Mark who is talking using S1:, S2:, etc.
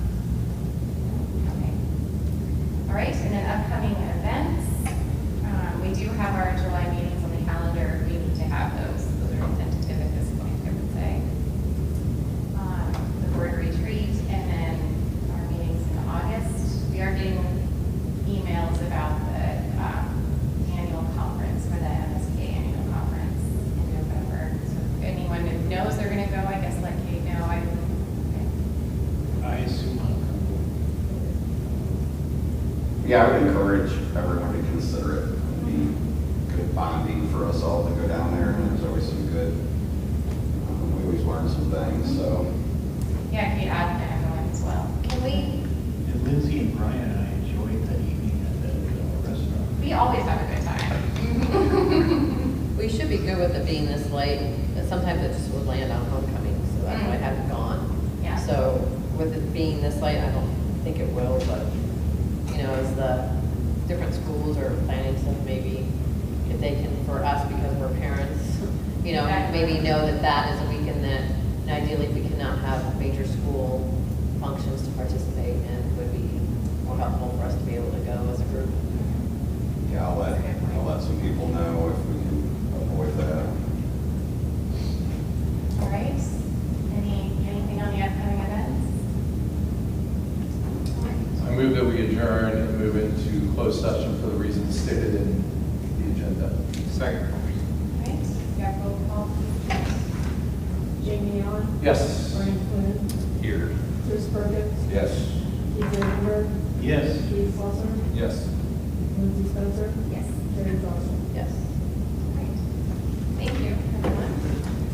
S1: All right, and then upcoming events, um, we do have our July meetings on the calendar, we need to have those, those are tentative at this point, I would say. Um, The board retreat, and then our meetings in August, we are getting emails about the um, annual conference, for the MSK annual conference in November. So if anyone that knows they're gonna go, I guess let Kate know, I,
S2: I assume I'll
S3: Yeah, I would encourage everyone to consider it. It'd be good bonding for us all to go down there, and there's always some good, um, we always learn some things, so.
S1: yeah, Kate, I'd going as well.
S4: Can we,
S2: come. And Lindsay and Brian and I enjoyed that evening at that uh, restaurant.
S1: We always have a good time.
S4: we should be good with it being this late, but sometimes it just would land on homecoming, so that's why I haven't gone.
S1: Yeah.
S4: So with it being this late, I don't think it will, but, you know, as the different schools are planning stuff, maybe if they can, for us, because we're parents, you know,
S1: Exactly.
S4: maybe know that that is a weekend that, and ideally, we cannot have major school functions to participate in, would be more helpful for us to be able to go as a group.
S3: Yeah, I'll let, I'll let some people know if we can avoid that.
S1: All right, any, anything on the upcoming events?
S5: I move that we adjourn and move into closed session for the reasons stated in the agenda. Second.
S1: All right, we have roll call.
S6: Jamie Allen,
S5: Yes.
S6: Brian Flynn,
S5: Here.
S6: Bruce Perkins,
S5: Yes.
S6: Keith Goldberg,
S2: Yes.
S6: Keith Salzer,
S5: Yes.
S6: Lindsey Spencer,
S1: Yes.
S6: Terry Dawson.